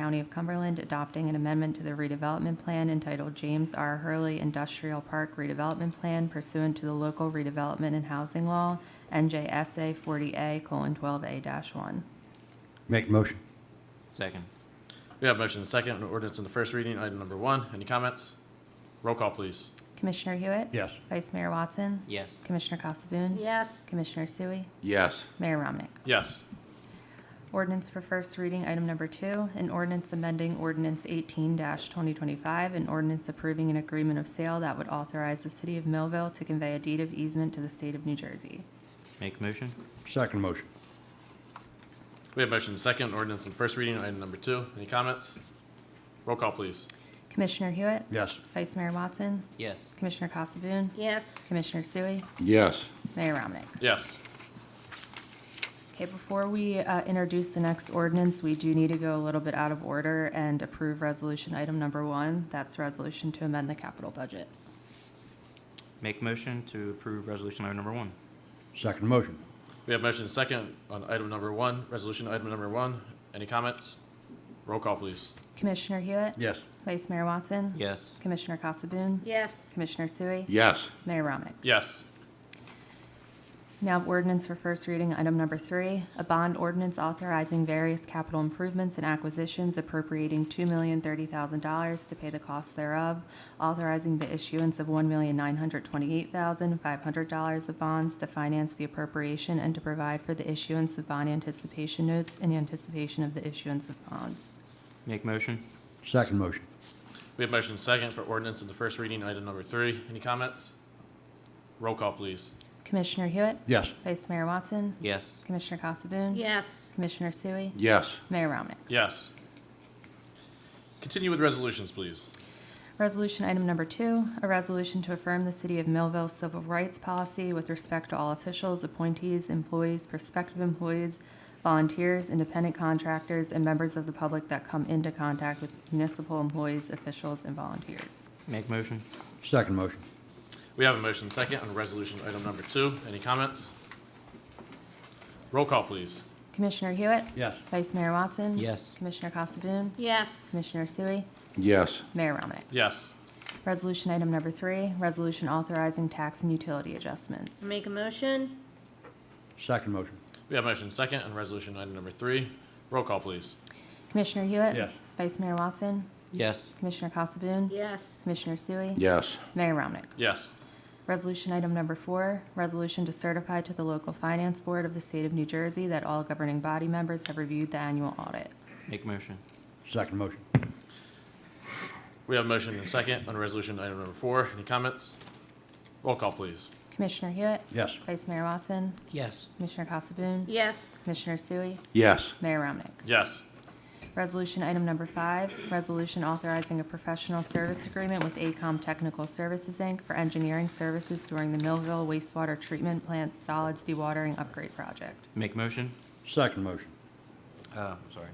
County of Cumberland adopting an amendment to the redevelopment plan entitled James R. Hurley Industrial Park Redevelopment Plan pursuant to the local redevelopment and housing law, NJSA 40A: 40A:12A-1. Make motion. Second. We have motion and second, and ordinance in the first reading, item number one. Any comments? Roll call, please. Commissioner Hewitt? Yes. Vice Mayor Watson? Yes. Commissioner Casabun? yes, Commissioner Sui? Yes. Mayor Ramnick? Yes. Ordinance for first reading, item number two, an ordinance amending ordinance eighteen twenty twenty-five, an ordinance approving an agreement of sale that would authorize the city of Millville to convey a deed of easement to the state of New Jersey. Make a motion? Second motion. We have motion and second, ordinance in first reading, item number two. Any comments? Roll call, please. Commissioner Hewitt? Yes. Vice Mayor Watson? Yes. Commissioner Casabun? yes, Commissioner Sui? Yes. Mayor Ramnick? Yes. Okay, before we uh, introduce the next ordinance, we do need to go a little bit out of order and approve resolution item number one. That's resolution to amend the capital budget. Make a motion to approve resolution item number one. Second motion. We have motion and second on item number one, resolution item number one. Any comments? Roll call, please. Commissioner Hewitt? Yes. Vice Mayor Watson? Yes. Commissioner Casabun? yes, Commissioner Sui? Yes. Mayor Ramnick. Yes. Now ordinance for first reading, item number three, a bond ordinance authorizing various capital improvements and acquisitions appropriating two million thirty thousand dollars to pay the costs thereof, authorizing the issuance of one million nine hundred twenty-eight thousand five hundred dollars of bonds to finance the appropriation and to provide for the issuance of bond anticipation notes in anticipation of the issuance of bonds. Make a motion? Second motion. We have motion and second for ordinance in the first reading, item number three. Any comments? Roll call, please. Commissioner Hewitt? Yes. Vice Mayor Watson? Yes. Commissioner Casabun? yes, Commissioner Sui? Yes. Mayor Ramnick. Yes. Continue with resolutions, please. Resolution item number two, a resolution to affirm the City of Millville Civil Rights Policy with respect to all officials, appointees, employees, prospective employees, volunteers, independent contractors, and members of the public that come into contact with municipal employees, officials, and volunteers. Make a motion? Second motion. We have a motion and second on resolution item number two. Any comments? Roll call, please. Commissioner Hewitt? Yes. Vice Mayor Watson? Yes. Commissioner Casabun? yes, Commissioner Sui? Yes. Mayor Ramnick. Yes. Resolution item number three, resolution authorizing tax and utility adjustments. make a motion, Second motion. We have motion and second on resolution item number three. Roll call, please. Commissioner Hewitt? Yes. Vice Mayor Watson? Yes. Commissioner Casabun? yes, Commissioner Sui? Yes. Mayor Ramnick. Yes. Resolution item number four, resolution to certify to the local finance board of the state of New Jersey that all governing body members have reviewed the annual audit. Make a motion? Second motion. We have motion and second on resolution item number four. Any comments? Roll call, please. Commissioner Hewitt? Yes. Vice Mayor Watson? Yes. Commissioner Casabun? yes, Commissioner Sui? Yes. Mayor Ramnick. Yes. Resolution item number five, resolution authorizing a professional service agreement with ACOM Technical Services, Inc. for engineering services during the Millville wastewater treatment plant solids dewatering upgrade project. Make a motion? Second motion. Uh, I'm sorry.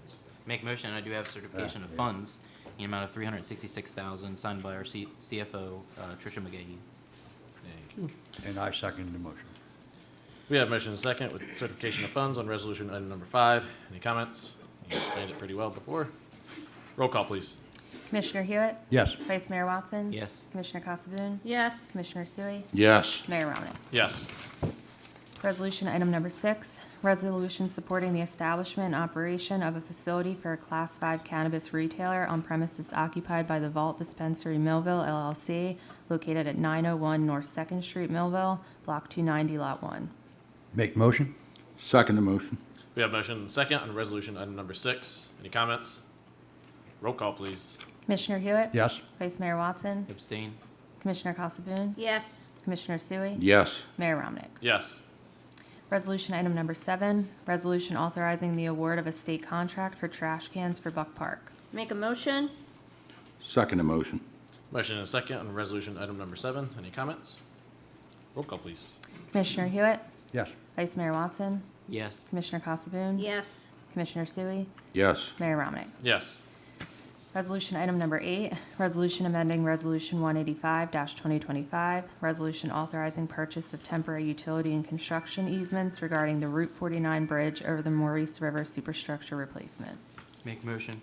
Make a motion, I do have certification of funds in the amount of three hundred and sixty-six thousand, signed by our C- CFO, uh, Tricia McGahee. And I second the motion. We have motion and second with certification of funds on resolution item number five. Any comments? You explained it pretty well before. Roll call, please. Commissioner Hewitt? Yes. Vice Mayor Watson? Yes. Commissioner Casabun? yes, Commissioner Sui? Yes. Mayor Ramnick. Yes. Resolution item number six, resolution supporting the establishment and operation of a facility for a Class 5 cannabis retailer on premises occupied by the Vault Dispensary Millville LLC, located at 901 North Second Street, Millville, Block 290, Lot 1. Make motion. Second motion. We have motion and second on resolution item number six. Any comments? Roll call, please. Commissioner Hewitt? Yes. Vice Mayor Watson? Abstain? Commissioner Casabun? yes, Commissioner Sui? Yes. Mayor Ramnick. Yes. Resolution item number seven, resolution authorizing the award of a state contract for trash cans for Buck Park. make a motion, Second motion. Motion and second on resolution item number seven. Any comments? Roll call, please. Commissioner Hewitt? Yes. Vice Mayor Watson? Yes. Commissioner Casabun? yes, Commissioner Sui? Yes. Mayor Ramnick. Yes. Resolution item number eight, resolution amending Resolution 185-2025, resolution authorizing purchase of temporary utility and construction easements regarding the Route 49 bridge over the Maurice River superstructure replacement. Make a motion?